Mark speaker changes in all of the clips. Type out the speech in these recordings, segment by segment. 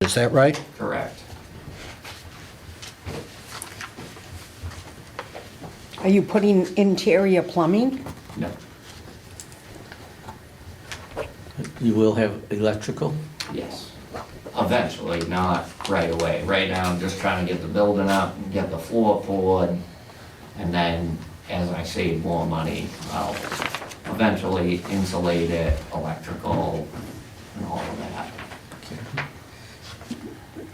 Speaker 1: Is that right?
Speaker 2: Correct.
Speaker 3: Are you putting interior plumbing?
Speaker 2: No.
Speaker 4: You will have electrical?
Speaker 2: Yes. Eventually, not right away. Right now, I'm just trying to get the building up, get the floor poured, and then as I save more money, I'll eventually insulate it, electrical, and all of that.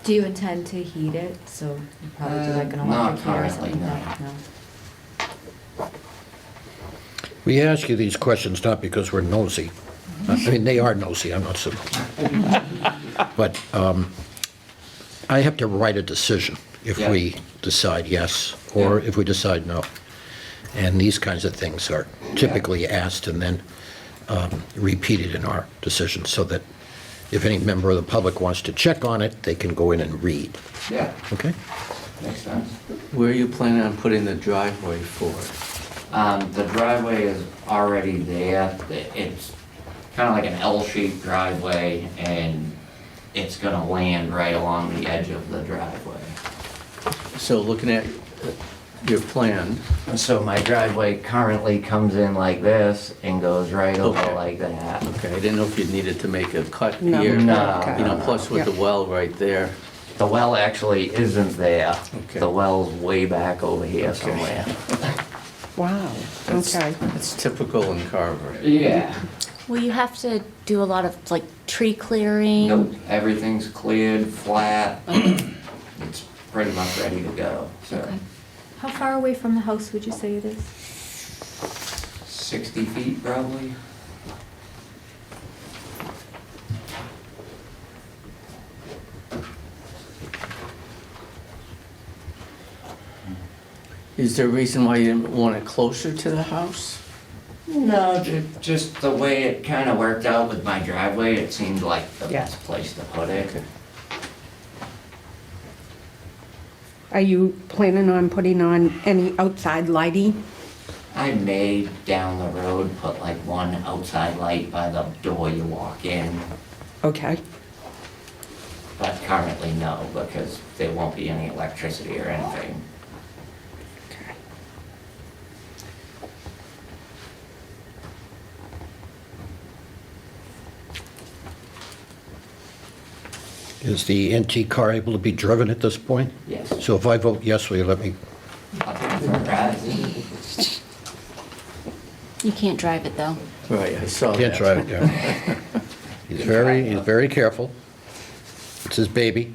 Speaker 5: Do you intend to heat it? So you probably do like an
Speaker 2: Uh, not
Speaker 5: electric heater or something?
Speaker 2: currently,
Speaker 1: We ask you these questions not because we're nosy. I mean, they are nosy, I'm not so. But um, I have to write a decision if
Speaker 2: Yeah.
Speaker 1: we decide yes or
Speaker 2: Yeah.
Speaker 1: if we decide no. And these kinds of things are typically asked and then um, repeated in our decision so that if any member of the public wants to check on it, they can go in and read.
Speaker 2: Yeah,
Speaker 1: Okay?
Speaker 2: makes sense.
Speaker 4: Where are you planning on putting the driveway for?
Speaker 2: Um, the driveway is already there, The- it's kinda like an L-shaped driveway, and it's gonna land right along the edge of the driveway.
Speaker 4: So looking at uh, your plan,
Speaker 2: And So my driveway currently comes in like this and goes right over
Speaker 4: Okay.
Speaker 2: like that.
Speaker 4: okay, I didn't know if you needed to make a cut
Speaker 3: No.
Speaker 4: here.
Speaker 2: No.
Speaker 4: You know, plus with the
Speaker 3: Yeah.
Speaker 4: well right there.
Speaker 2: The well actually isn't there,
Speaker 4: Okay.
Speaker 2: the well's way back over here somewhere.
Speaker 3: Wow,
Speaker 4: That's-
Speaker 3: okay.
Speaker 4: That's typical in Carver.
Speaker 2: Yeah.
Speaker 5: Will you have to do a lot of like tree clearing?
Speaker 2: Nope, everything's cleared, flat, it's pretty much ready to go, so
Speaker 5: Okay. How far away from the house would you say it is?
Speaker 2: sixty feet probably.
Speaker 4: Is there a reason why you didn't want it closer to the house?
Speaker 2: No, ju- just the way it kind of worked out with my driveway, it seemed like the
Speaker 3: Yeah.
Speaker 2: best place to put it.
Speaker 3: Are you planning on putting on any outside lighting?
Speaker 2: I may down the road put like one outside light by the door you walk in,
Speaker 3: Okay,
Speaker 2: but currently no, because there won't be any electricity or anything.
Speaker 3: okay.
Speaker 1: Is the antique car able to be driven at this point?
Speaker 2: Yes.
Speaker 1: So if I vote yes, will you let me
Speaker 2: I'll take it for a ride.
Speaker 5: You can't drive it though.
Speaker 4: Right, I saw that.
Speaker 1: Can't try it, yeah. He's very, he's very careful. It's his baby.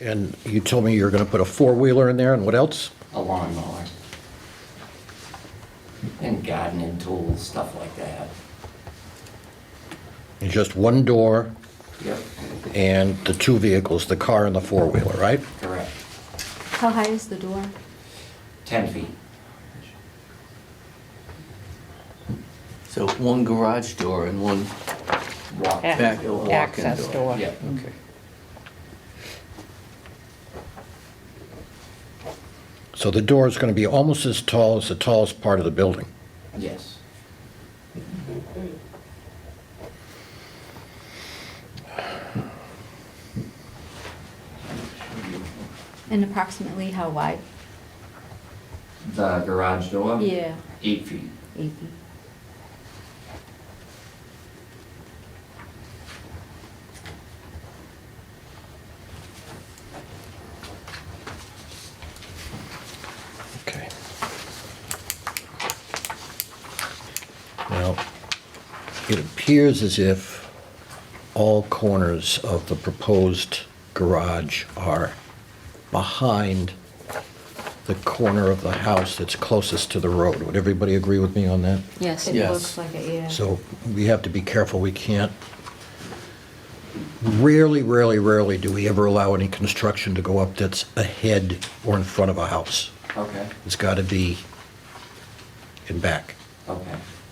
Speaker 1: And you told me you were going to put a four-wheeler in there, and what else?
Speaker 2: A lawnmower. And gardening tools, stuff like that.
Speaker 1: And Just one door
Speaker 2: Yep,
Speaker 1: and the two vehicles, the car and the four-wheeler, right?
Speaker 2: correct.
Speaker 5: How high is the door?
Speaker 2: Ten feet.
Speaker 4: So one garage door and one
Speaker 2: Walk.
Speaker 3: Yeah.
Speaker 4: back walk-in door.
Speaker 3: Access door.
Speaker 2: Yeah.
Speaker 4: Okay.
Speaker 1: So the door is going to be almost as tall as the tallest part of the building.
Speaker 2: Yes.
Speaker 5: And approximately how wide?
Speaker 2: The garage door?
Speaker 5: Yeah.
Speaker 2: Eight feet.
Speaker 5: Eighty.
Speaker 1: Okay. Now, it appears as if all corners of the proposed garage are behind the corner of the house that's closest to the road. Would everybody agree with me on that?
Speaker 5: Yes. It
Speaker 4: Yes.
Speaker 5: looks like it, yeah.
Speaker 1: So we have to be careful, we can't, rarely, rarely, rarely do we ever allow any construction to go up that's ahead or in front of a house.
Speaker 2: Okay,
Speaker 1: It's got to be in back.
Speaker 2: okay.